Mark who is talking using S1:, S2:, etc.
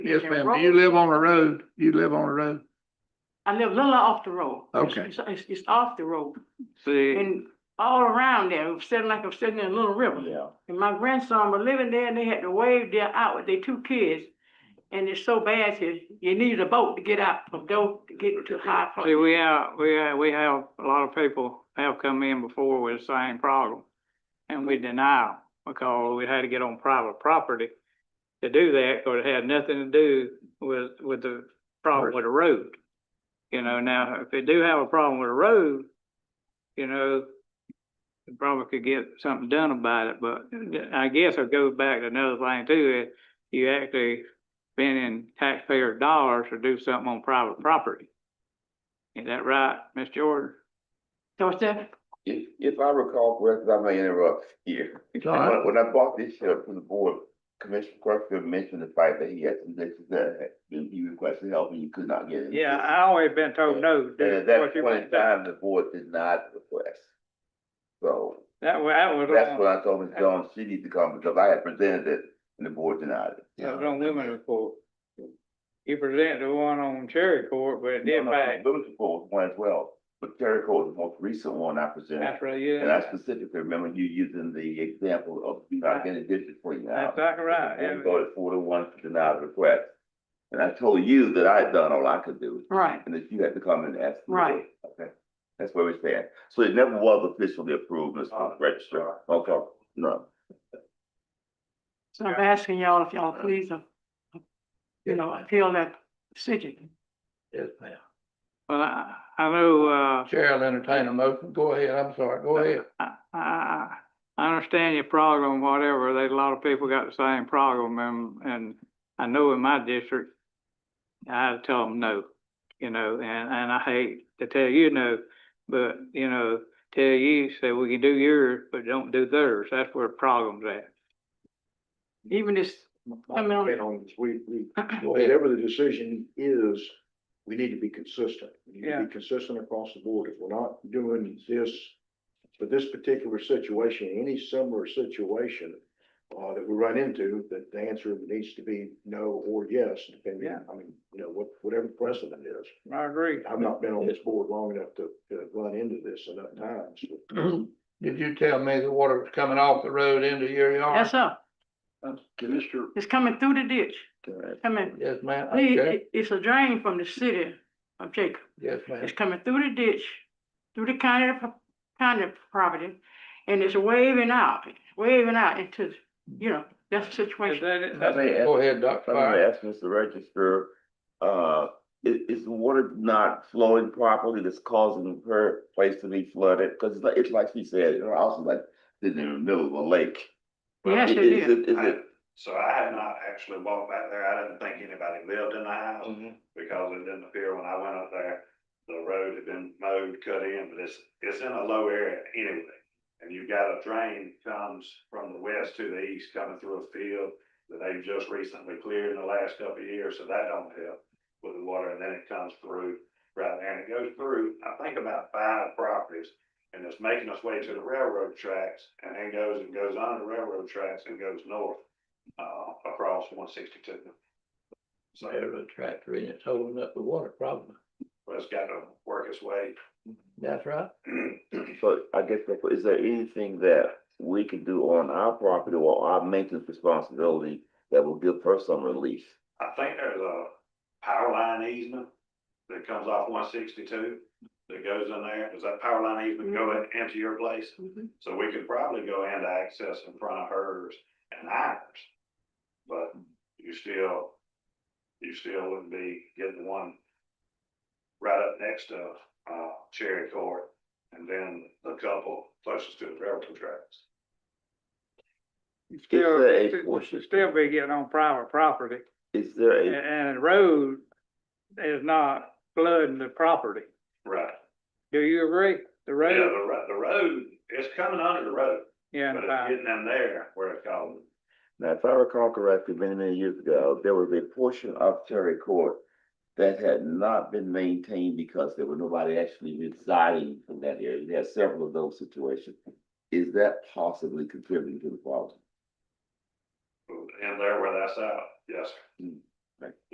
S1: Yes,
S2: and
S1: ma'am. Do
S2: roll.
S1: you live on a road? You live on a road?
S2: I live a little off the road. It's-
S1: Okay.
S2: It's, it's, it's off the road
S3: See,
S2: and all around there, I'm sitting like I'm sitting in a little river.
S3: yeah,
S2: And my grandson was living there and they had to wave their out with their two kids. And it's so bad here, you need a boat to get out from door to get to high
S3: see,
S2: place.
S3: we have, we have, we have, a lot of people have come in before with the same problem. And we deny 'em because we had to get on private property to do that, or it had nothing to do with, with the problem with the road. You know, now, if they do have a problem with the road, you know, they probably could get something done about it, but I guess it goes back to another thing too, is you actually spending taxpayer dollars to do something on private property. Is that right, Ms. Jordan?
S2: So it's that,
S4: If, if I recall correctly, I may interrupt here.
S1: It's all right.
S4: When when I bought this shirt from the board, Commissioner Crutchfield mentioned the fact that he had some issues that had been, he requested help and you could not get it.
S3: Yeah, I always been told no. to do
S4: And at
S3: what
S4: that
S3: you
S4: point in
S3: want to do.
S4: time, the board did not request. So
S3: That was, that was
S4: that's
S3: on,
S4: what I told Ms. Jones, she needs to come because I had presented it and the board denied it.
S3: that was on women's court. You presented the one on Cherry Court, but it
S4: No,
S3: did
S4: no,
S3: back,
S4: Women's report was one as well, but Terry Cole is the most recent one I presented.
S3: that's right, yeah.
S4: And I specifically remember you using the example of you not getting dishes for you now.
S3: That's exactly right.
S4: And
S3: yeah.
S4: we voted four to one to deny the request. And I told you that I had done all I could do,
S2: right,
S4: and that you had to come and ask. me.
S2: Right.
S4: Okay, that's where we stand. So it never was officially approved, Mr. Registrar. Okay, no.
S2: so I'm asking y'all if y'all please, uh, you
S1: Yes,
S2: know,
S1: ma'am.
S2: appeal that decision.
S1: Yes, ma'am.
S3: Well, I, I know, uh,
S1: Chair will entertain a motion. Go ahead. I'm sorry. Go ahead.
S3: I, I, I understand your problem, whatever, there's a lot of people got the same problem, and, and I know in my district, I had to tell them no, you know, and, and I hate to tell you no, but, you know, tell you, say, we can do yours, but don't do theirs, that's where the problem's at.
S2: Even this, I mean,
S5: And on this, we, we,
S1: Go ahead.
S5: whatever the decision is, we need to be consistent. We need to
S3: Yeah.
S5: be consistent across the board. If we're not doing this for this particular situation, any similar situation uh, that we run into, that the answer needs to be no or yes, depending,
S3: Yeah.
S5: I mean, you know, what, whatever precedent is.
S3: I agree.
S5: I've not been on this board long enough to, to run into this enough times.
S1: Did you tell me the water was coming off the road into your yard?
S2: that's up,
S3: Uh,
S5: Mr.
S2: it's coming through the ditch, coming,
S1: Yes, ma'am.
S2: it-
S1: Okay.
S2: it- it's a drain from the city of Jacob.
S1: Yes, ma'am.
S2: It's coming through the ditch, through the county, pro- county property, and it's waving out, waving out into, you know, that's the
S3: Is
S2: situation.
S3: that it?
S4: I may ask,
S1: Go ahead, Dr.
S4: I may
S1: Fire.
S4: ask Mr. Registrar, uh, is, is the water not flowing properly that's causing her place to be flooded? Cause it's like, it's like she said, her house is like, sitting in the middle of a lake.
S2: Yes, it
S4: Is
S2: is.
S4: it, is it?
S6: So I have not actually walked back there. I didn't think anybody lived in the house
S4: Mm-hmm.
S6: because it didn't appear when I went up there. The road had been mowed, cut in, but it's, it's in a low area anyway. And you've got a drain comes from the west to the east coming through a field that they've just recently cleared in the last couple of years, so that don't help with the water. And then it comes through right there and it goes through, I think about five properties. And it's making its way to the railroad tracks and then goes and goes on the railroad tracks and goes north uh, across one sixty-two. So
S1: Railroad tractor and it's holding up the water problem.
S6: it's got to work its way.
S1: That's right.
S4: So I guess, that- is there anything that we can do on our property or our maintenance responsibility that will give her some relief?
S6: I think there's a power line easement that comes off one sixty-two that goes in there. Does that power line easement go in- into your place?
S2: Mhm.
S6: So we could probably go into access in front of hers and ours. But you still, you still wouldn't be getting one right up next to, uh, Cherry Court and then the couple closest to the railroad tracks.
S3: You Still,
S4: there a
S3: you
S4: portion-
S3: should still be getting on private property,
S4: Is there
S3: and,
S4: a,
S3: and the road is not flooding the property.
S6: Right.
S3: Do you agree? The
S6: Yeah,
S3: road,
S6: the road, the road, it's coming under the road,
S3: yeah, and
S6: but it's
S3: fine.
S6: getting in there where it's called.
S4: now, if I recall correctly, many, many years ago, there was a portion of Terry Court that had not been maintained because there was nobody actually residing in that area. There are several of those situations. Is that possibly contributing to the problem?
S6: in there where that's out, yes. sir.